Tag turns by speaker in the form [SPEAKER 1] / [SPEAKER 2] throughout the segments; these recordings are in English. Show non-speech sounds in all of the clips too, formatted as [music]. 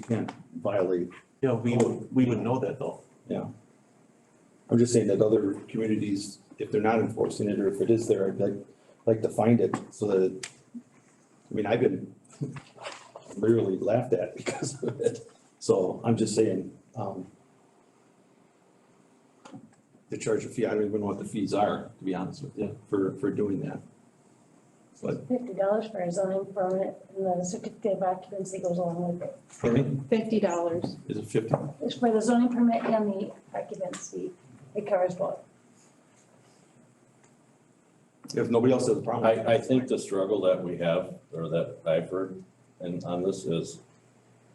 [SPEAKER 1] can't violate.
[SPEAKER 2] Yeah, we would, we would know that though.
[SPEAKER 1] I'm just saying that other communities, if they're not enforcing it, or if it is there, I'd like, like to find it so that. I mean, I've been [laughs] literally laughed at because of it, so I'm just saying, um. They charge a fee, I don't even know what the fees are, to be honest with you, for, for doing that. But,
[SPEAKER 3] Fifty dollars for a zoning permit and the certificate of occupancy goes along with it.
[SPEAKER 1] pardon
[SPEAKER 4] Fifty dollars.
[SPEAKER 1] me, is it fifty?
[SPEAKER 3] It's for the zoning permit and the occupancy, it covers both.
[SPEAKER 1] If nobody else has a problem.
[SPEAKER 5] I, I think the struggle that we have, or that I've heard, and on this is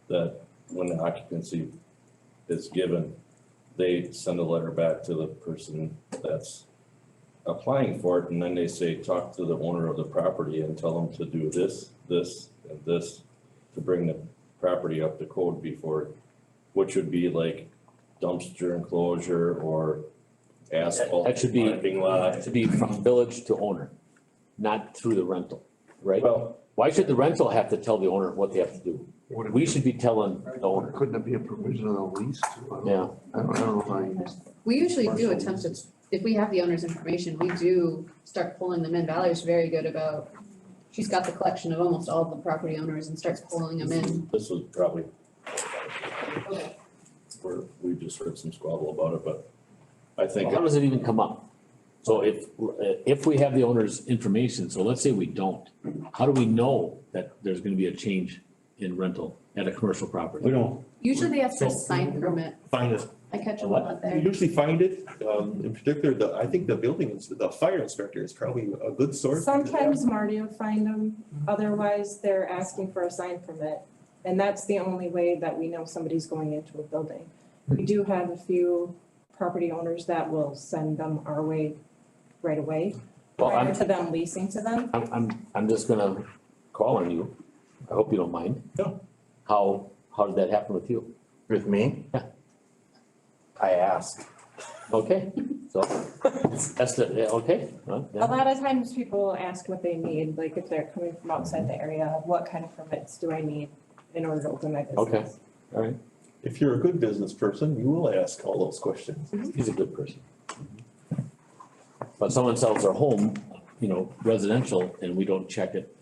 [SPEAKER 5] that when the occupancy is given, they send a letter back to the person that's applying for it, and then they say, talk to the owner of the property and tell them to do this, this, and this to bring the property up to code before, which would be like dumpster enclosure or asphalt
[SPEAKER 6] That should be-
[SPEAKER 5] parking lot.
[SPEAKER 6] uh, To be from village to owner, not through the rental, right?
[SPEAKER 5] Well,
[SPEAKER 6] Why should the rental have to tell the owner what they have to do? We should be telling the owner,
[SPEAKER 7] Couldn't it be a provision of the lease? too? I don't-
[SPEAKER 6] yeah.
[SPEAKER 7] I don't, I don't know how you.
[SPEAKER 4] We usually do
[SPEAKER 7] Partial
[SPEAKER 4] attempt to, if we have the owner's information, we do start pulling them in. Valerie's very good about, she's got the collection of almost all the property owners and starts pulling them in.
[SPEAKER 5] This was probably, where we just heard some squabble about it, but I think,
[SPEAKER 6] How does it even come up? So if, if we have the owner's information, so let's say we don't, how do we know that there's gonna be a change in rental at a commercial
[SPEAKER 1] We
[SPEAKER 6] property?
[SPEAKER 1] don't,
[SPEAKER 4] Usually they have to
[SPEAKER 2] So-
[SPEAKER 4] sign permit.
[SPEAKER 2] Find us,
[SPEAKER 4] I catch them a
[SPEAKER 1] What?
[SPEAKER 4] lot
[SPEAKER 1] You
[SPEAKER 4] there.
[SPEAKER 1] usually find it, um, in particular, the, I think the building, ins- the fire inspector is probably a good source.
[SPEAKER 8] Sometimes Marty will find them, otherwise they're asking for a sign permit. And that's the only way that we know somebody's going into a building. We do have a few property owners that will send them our way right away,
[SPEAKER 6] Well,
[SPEAKER 8] prior
[SPEAKER 6] I'm,
[SPEAKER 8] to them leasing to them.
[SPEAKER 6] I'm, I'm, I'm just gonna call on you. I hope you don't mind.
[SPEAKER 1] No.
[SPEAKER 6] How, how did that happen with you?
[SPEAKER 7] With me?
[SPEAKER 6] Yeah.
[SPEAKER 7] I asked.
[SPEAKER 6] Okay, so, that's the, yeah, okay, well,
[SPEAKER 8] A
[SPEAKER 6] yeah.
[SPEAKER 8] lot of times people will ask what they need, like if they're coming from outside the area, what kind of permits do I need in order to open my business?
[SPEAKER 6] Okay. all right,
[SPEAKER 1] If you're a good business person, you will ask all those questions.
[SPEAKER 6] he's a good person. But someone sells their home, you know, residential, and we don't check it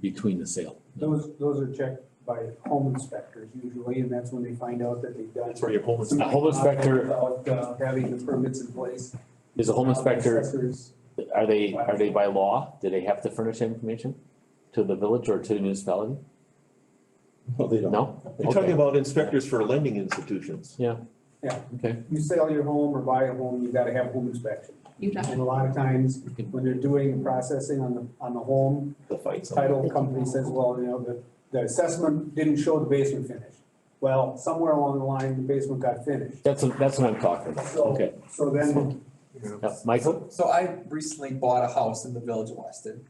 [SPEAKER 6] between the sale.
[SPEAKER 9] Those, those are checked by home inspectors usually, and that's when they find out that they've done.
[SPEAKER 1] That's where your home is.
[SPEAKER 6] A home inspector-
[SPEAKER 9] Without uh, having the permits in place. Uh,
[SPEAKER 6] Is a home inspector
[SPEAKER 9] Inspectors,
[SPEAKER 6] Are they, are they by law, do they have to furnish that information to the village or to the municipality?
[SPEAKER 1] No, they don't.
[SPEAKER 6] No?
[SPEAKER 1] You're talking about inspectors for lending institutions.
[SPEAKER 6] Okay,
[SPEAKER 9] You sell your home or buy a home, you gotta have home inspection.
[SPEAKER 4] You know,
[SPEAKER 9] And a lot of times, when they're doing the processing on the, on the home,
[SPEAKER 1] The fights.
[SPEAKER 9] title company says, well, you know, the, the assessment didn't show the basement finish. Well, somewhere along the line, the basement got finished.
[SPEAKER 6] that's, what- that's what I'm talking about,
[SPEAKER 9] So-
[SPEAKER 6] okay.
[SPEAKER 9] So then,
[SPEAKER 6] Now, Michael,
[SPEAKER 10] So I recently bought a house in the village of Weston.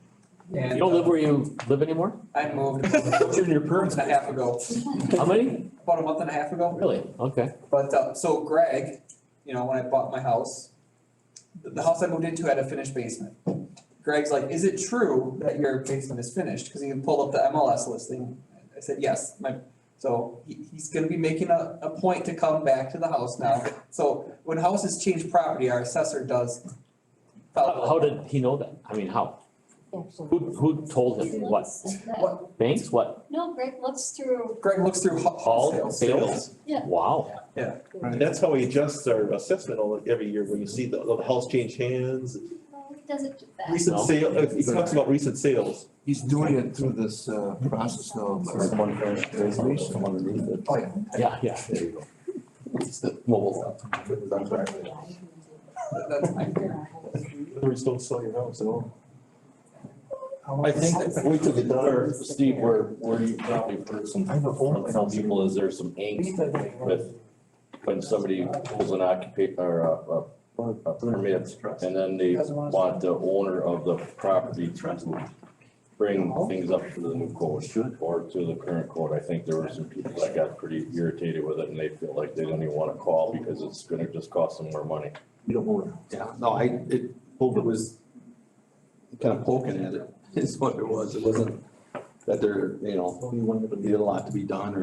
[SPEAKER 6] you
[SPEAKER 10] And
[SPEAKER 6] don't live where you live anymore?
[SPEAKER 10] I moved
[SPEAKER 1] [laughs] It's
[SPEAKER 10] about
[SPEAKER 1] in your
[SPEAKER 10] a month
[SPEAKER 1] permit.
[SPEAKER 10] and a half ago,
[SPEAKER 6] How many?
[SPEAKER 10] about a month and a half ago.
[SPEAKER 6] Really? Okay,
[SPEAKER 10] But uh, so Greg, you know, when I bought my house, the, the house I moved into had a finished basement. Greg's like, is it true that your basement is finished? Cause he pulled up the MLS listing. I said, yes, my, so he, he's gonna be making a, a point to come back to the house now. So when houses change property, our assessor does.
[SPEAKER 6] how,
[SPEAKER 10] follow
[SPEAKER 6] how did he know that? I mean, how? Who, who told him what? Banks, what?
[SPEAKER 11] No, Greg looks through,
[SPEAKER 10] Greg looks through ho- home
[SPEAKER 6] All
[SPEAKER 10] sales.
[SPEAKER 6] sales?
[SPEAKER 11] Yeah.
[SPEAKER 6] Wow,
[SPEAKER 1] That's how he adjusts our assessment all, every year, when you see the, the house change hands,
[SPEAKER 11] no, he doesn't do that.
[SPEAKER 1] recent
[SPEAKER 6] No.
[SPEAKER 1] sale, uh, he talks about recent sales.
[SPEAKER 7] He's doing it through this, uh, process now. Reservation. Oh, yeah.
[SPEAKER 6] yeah, yeah. there you go.
[SPEAKER 10] That's my
[SPEAKER 1] Others don't sell your house at all.
[SPEAKER 5] I think, wait till the door, Steve, where, where you probably heard some, from some people is there's some angst with when somebody pulls an occupa- or a, a, a permit, and then they want the owner of the property to bring things up to the new code or to the current code. I think there were some people that got pretty irritated with it, and they feel like they don't even wanna call because it's gonna just cost them more money.
[SPEAKER 7] You don't own it.
[SPEAKER 1] Yeah, no, I, it, hope it was kind of [laughs] poking at it, is what it was, it wasn't that there, you know, needed a lot to be done or